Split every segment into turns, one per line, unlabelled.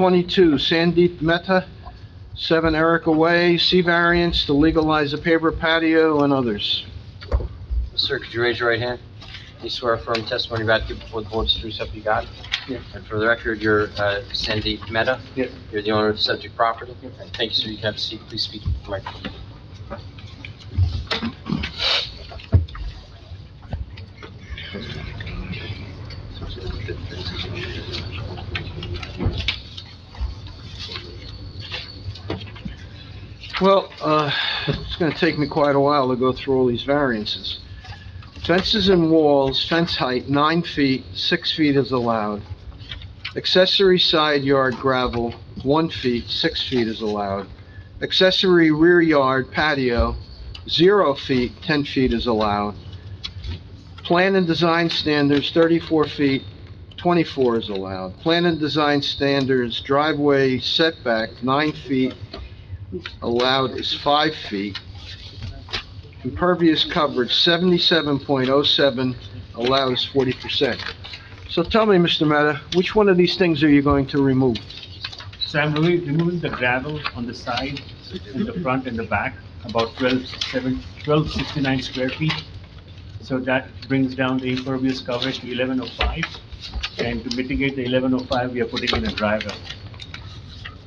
222 Sandeep Mehta, 7 Erica Way, C variance to legalize a paper patio and others.
Sir, could you raise your right hand? Do you swear affirm testimony about to give before the board is true self you got?
Yeah.
And for the record, you're uh, Sandeep Mehta?
Yeah.
You're the owner of the subject property? And Thank you, sir. You can have a seat. Please speak. into the microphone.
Well, uh, it's gonna take me quite a while to go through all these variances. Fences and walls, fence height 9 feet, 6 feet is allowed. Accessory side yard gravel, 1 feet, 6 feet is allowed. Accessory rear yard patio, 0 feet, 10 feet is allowed. Plan and design standards, 34 feet, 24 is allowed. Plan and design standards, driveway setback, 9 feet, allowed is five feet. Impervious coverage, seventy-seven point oh seven, allowed is forty percent. So tell me, Mr. Mehta, which one of these things are you going to remove?
So I'm remo- removing the gravel on the side, and the front and the back, about twelve seven, twelve sixty-nine square feet. So that brings down the impervious coverage to eleven oh five, and to mitigate the eleven oh five, we are putting in a driveway.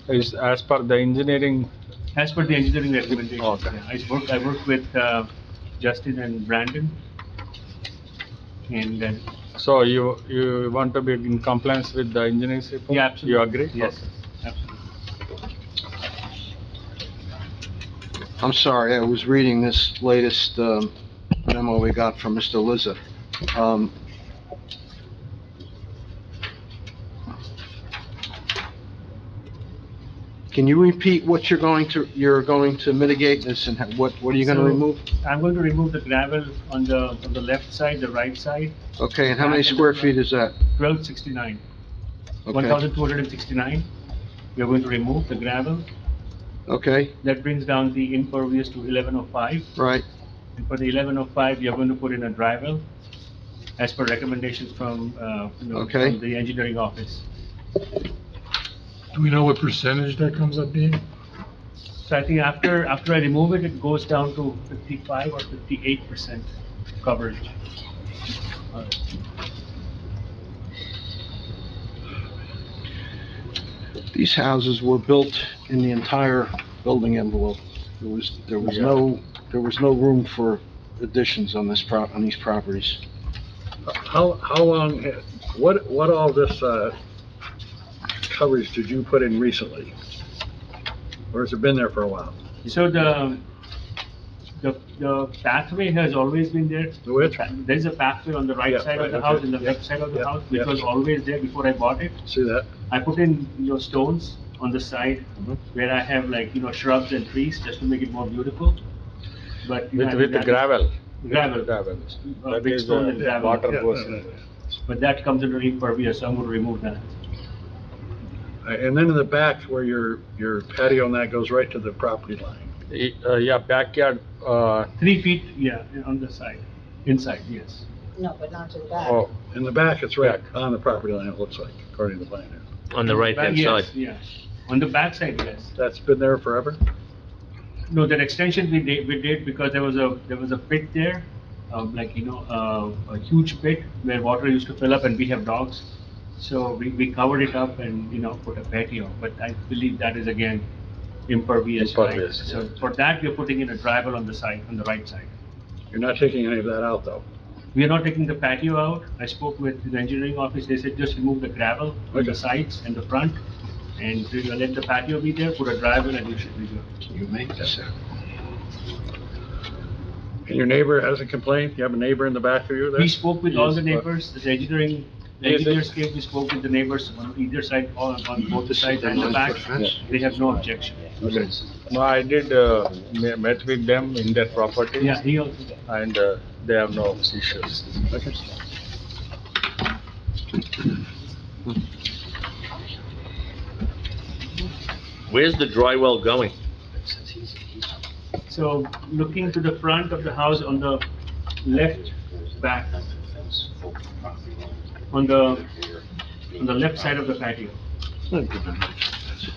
is as per the engineering,
As per the engineering recommendations,
Okay.
yeah, I work, I work with, uh, Justin and Brandon. And then,
so you, you want to be in compliance with the engineering report?
yeah, absolutely.
You agree?
Yes, absolutely.
I'm sorry, I was reading this latest um, memo we got from Mr. Lizza. Um, Can you repeat what you're going to, you're going to mitigate this and ha- what, what are you gonna
So-
remove?
I'm going to remove the gravel on the, on the left side, the right side,
Okay, and how many square feet is that?
twelve sixty-nine.
Okay.
1,269. We are going to remove the gravel.
Okay,
That brings down the impervious to 1105.
right,
And for the 1105, we are going to put in a drywall as per recommendations from, uh, you know,
Okay.
from the engineering office.
Do we know what percentage that comes up being?
So I think after, after I remove it, it goes down to 55 or 58% coverage.
these houses were built in the entire building envelope. There was, there was no, there was no room for additions on this pro, on these properties.
How, how long, ha- what, what all this, uh, coverage did you put in recently? Or has it been there for a while?
So the, the, the pathway has always been there.
The which?
There's a pathway on the right
Yeah,
side of
right,
the
okay.
house and the
Yeah,
left side of the
yeah,
house, which
yeah.
was always there before I bought it.
See that?
I put in your stones on the side
Mm-hmm.
where I have like, you know, shrubs and trees just to make it more beautiful. But. you
With,
know,
with the gravel?
Gravel.
Gravel.
Uh,
That
big
is,
stone
uh,
and gravel.
Water
Yeah,
goes
yeah,
in.
But that comes under impervious, so I'm gonna remove that.
Uh, And then in the back where your, your patio and that goes right to the property line.
Y- uh, Yeah, backyard, uh,
Three feet, yeah, on the side, inside, yes.
No, but not to the back.
oh,
In the back, it's right on the property line, it looks like, according to the plan. here.
On the right hand
Yes,
side.
Yeah, on the back side, yes.
That's been there forever?
No, that extension we did, we did because there was a, there was a pit there, um, like, you know, uh, a huge pit where water used to fill up and we have dogs. So we, we covered it up and, you know, put a patio, but I believe that is again impervious, right?
Impervious,
So for that, we're putting in a drywall on the side, on the right side.
You're not taking any of that out, though?
We are not taking the patio out. I spoke with the engineering office, they said just remove the gravel on the
Okay.
sides and the front and you know, let the patio be there, put a drywall and you should be good.
You made this.
And your neighbor hasn't complained? You have a neighbor in the back of you there?
We spoke with all
Yes,
the
but-
neighbors, the engineering, the
Yes,
engineers came, we spoke with the neighbors on either side, on, on both
Mm-hmm.
the sides and the back.
Fence?
They have no objection.
no, I did, uh, me- met with them in their property.
Yeah, he also,
And uh, they have no issues.
Where's the dry well going?
so looking to the front of the house on the left back, on the, on the left side of the patio.
not good enough.